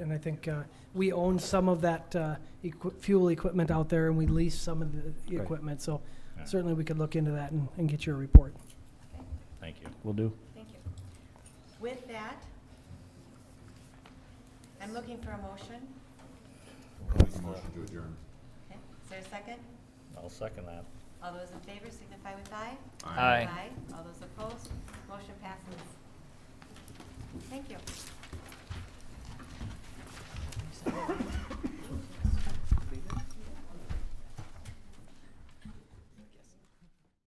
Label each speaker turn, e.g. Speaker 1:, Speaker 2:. Speaker 1: And I think uh, we own some of that uh, equi- fuel equipment out there, and we lease some of the
Speaker 2: Right.
Speaker 1: equipment. So
Speaker 3: Yeah.
Speaker 1: certainly, we could look into that and and get you a report.
Speaker 3: Thank you.
Speaker 2: Will do.
Speaker 4: Thank you. With that, I'm looking for a motion.
Speaker 5: Motion to adjourn.
Speaker 4: Okay, Is there a second?
Speaker 3: I'll second that.
Speaker 4: All those in favor signify with aye.
Speaker 3: Aye.
Speaker 4: All those opposed, motion passes. Thank you.